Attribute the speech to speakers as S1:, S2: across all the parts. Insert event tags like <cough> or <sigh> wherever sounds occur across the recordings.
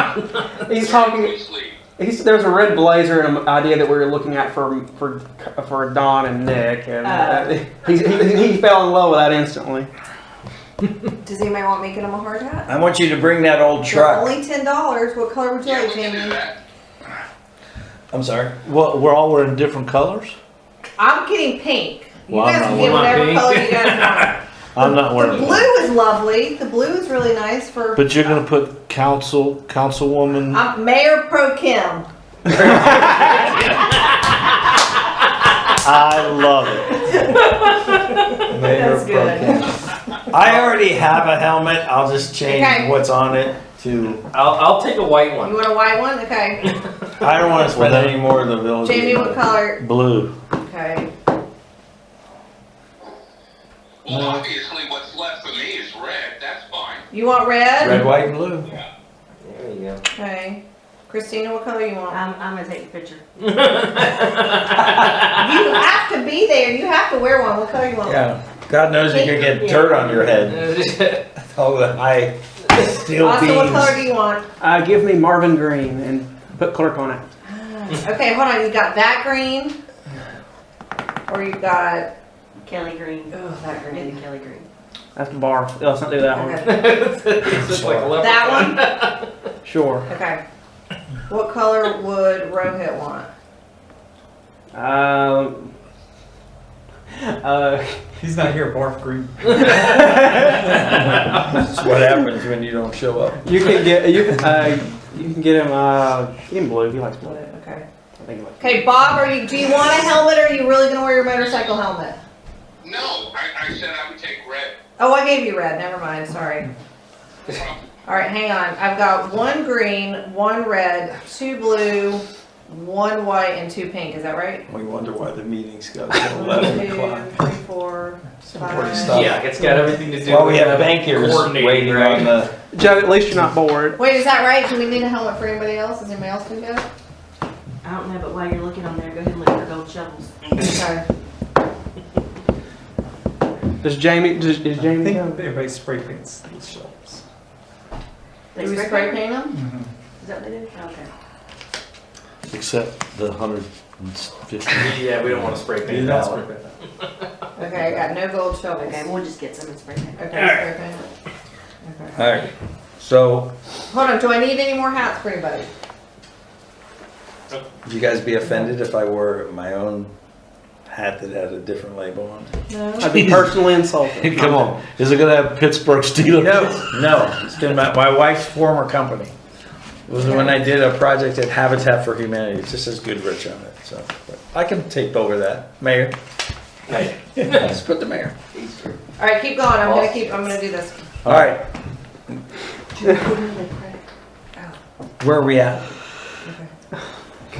S1: Uh, he's talking.
S2: Sleep.
S1: He's, there's a red blazer and an idea that we were looking at for for for Don and Nick, and
S3: Oh.
S1: uh, he, he, he fell in love with that instantly.
S3: Does anybody want me to get him a hard hat?
S4: I want you to bring that old
S3: They're
S4: truck.
S3: Only ten dollars. What color would you
S2: Yeah,
S3: like,
S2: we can do
S3: Jamie?
S2: that.
S3: <laughs>
S4: I'm sorry.
S5: Well, we're all wearing different colors.
S3: I'm getting pink. You
S5: Well, I'm
S3: guys
S5: not
S3: can get
S6: wearing
S3: whatever
S6: pink.
S3: color you guys
S5: I'm not
S3: want. the
S5: wearing. that.
S3: blue is lovely. The blue is really nice for
S5: But you're gonna put council, councilwoman.
S3: I'm Mayor Pro Kim.
S5: I love it.
S4: Mayor
S3: That's good.
S4: Pro Tem. I already have a helmet. I'll just change
S3: Okay.
S4: what's on it to.
S6: I'll, I'll take a white
S3: You
S6: one.
S3: want a white one? Okay.
S4: I don't want to spend
S5: Well, then-
S4: any more of the village.
S3: Jamie, what color?
S5: Blue.
S3: Okay.
S2: Well,
S1: Uh-huh.
S2: obviously, what's left for me is red. That's fine.
S3: You want red?
S4: Red, white, and blue.
S6: There you go.
S3: Okay. Christina, what color you want?
S7: I'm, I'm gonna take the picture.
S3: You have to be there. You have to wear one. What color you want?
S4: Yeah. God knows you could get dirt on your head.
S6: <laughs>
S4: All the high steel
S3: Austin, what color do
S4: beams.
S3: you want?
S1: Uh, give me Marvin Green and put Clark on it.
S3: Okay, hold on. You got that green, or you got
S7: Kelly Green.
S3: oh that
S7: Maybe Kelly Green.
S1: That's the bar. Let's not do that one.
S3: Okay.
S6: it's just like a leopard.
S3: That <laughs> one?
S1: Sure.
S3: Okay. What color would Rohit want?
S1: Um,
S4: <laughs>
S1: uh,
S8: He's not here, barf
S1: <laughs>
S8: green.
S4: That's what happens when you don't show up.
S1: you can get you can uh, you can get him uh, get him blue. He likes blue.
S3: Okay.
S1: I think he likes.
S3: Okay, Bob, are you, do you want a helmet or are you really gonna wear your motorcycle helmet?
S2: No, I, I said I would take red.
S3: Oh, I gave you red, never mind, sorry. Alright, hang on. I've got one green, one red, two blue, one white, and two pink, is that right?
S4: We wonder why the meeting's got to
S3: One, two,
S4: eleven o'clock.
S3: three, four,
S4: important
S3: five.
S4: stuff.
S6: Yeah, it's got everything to do
S4: Well,
S6: with
S4: we have
S6: the
S4: bankers
S6: coordinating,
S4: waiting
S6: right?
S4: on the.
S6: <laughs>
S1: Joe, at least you're not bored.
S3: Wait, is that right? Do we need a helmet for anybody else? Is anybody else gonna get it?
S7: I don't know, but while you're looking on there, go ahead and look for gold shovels.
S3: Okay.
S1: Does Jamie? Does, is
S8: I
S1: Jamie?
S8: think
S1: go?
S8: everybody spray paints these shelves.
S7: They
S3: Do we spray paint them?
S7: Is that what they do? Okay.
S5: Except the hundred and fifty.
S1: <laughs>
S6: Yeah, we don't want to spray
S4: You
S6: paint
S4: don't
S6: that
S4: spray
S6: one.
S3: Okay, I got no gold shovels.
S7: Okay, we'll just get some and spray paint.
S3: Okay, spray paint. Okay.
S4: All right. So
S3: Hold on, do I need any more hats for anybody?
S4: would you guys be offended if I wore my own hat that had a different label on? it?
S3: No.
S1: I'd be personally insulted.
S5: Come on. Is it gonna have Pittsburgh Steelers?
S4: No, no. It's been my, my wife's former company. It was when I did a project at Habitat for Humanity. It just says Goodrich on it. So but I can take over that, Mayor. <laughs>
S6: Hey,
S4: Let's put the mayor.
S3: All right, keep going. I'm gonna keep. I'm gonna do this.
S4: All right. Where are we at?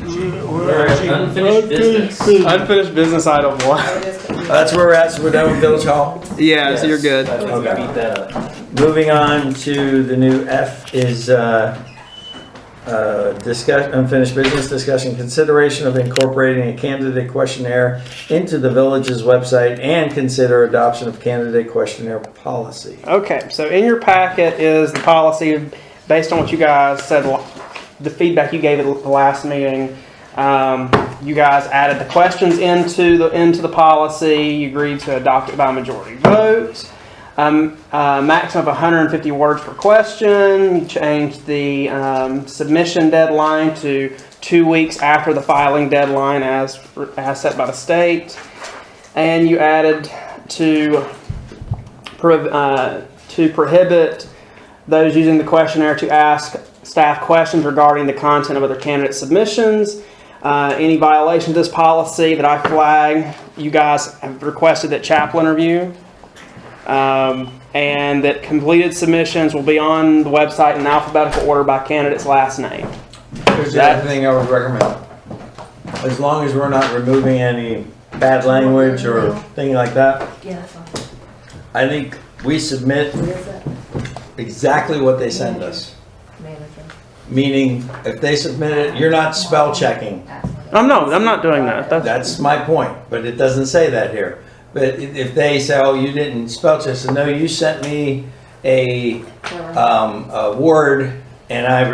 S6: unfinished business.
S1: Unfinished business item one.
S3: It is confusing.
S4: That's where we're at. So we're done with Village Hall.
S1: Yeah, so you're good.
S6: I think we
S4: Okay.
S6: beat that up.
S4: Moving on to the new F is, uh, uh, discuss, unfinished business discussion, consideration of incorporating a candidate questionnaire into the village's website and consider adoption of candidate questionnaire policy.
S1: Okay, so in your packet is the policy based on what you guys said, the feedback you gave at the last meeting. Um, you guys added the questions into the into the policy. You agreed to adopt it by majority vote. Um, uh, maximum of 150 words per question. You changed the um, submission deadline to two weeks after the filing deadline, as as set by the state. And you added to prohib- uh, to prohibit those using the questionnaire to ask staff questions regarding the content of other candidate submissions. Uh, Any violation of this policy that I flag, you guys have requested that chaplain review. Um, And that completed submissions will be on the website in alphabetical order by candidate's last name.
S4: Here's the other thing I would recommend. As long as we're not removing any bad language or thing like that,
S7: Yeah, that's all.
S4: I think we submit
S3: What is it?
S4: exactly what they send us.
S3: Manager.
S4: Meaning, if they submit it, you're not spell checking.
S1: I'm not, I'm not doing that. That's-
S4: That's my point, but it doesn't say that here. But i- if they say, oh, you didn't spell check, so no, you sent me a, um, a word and I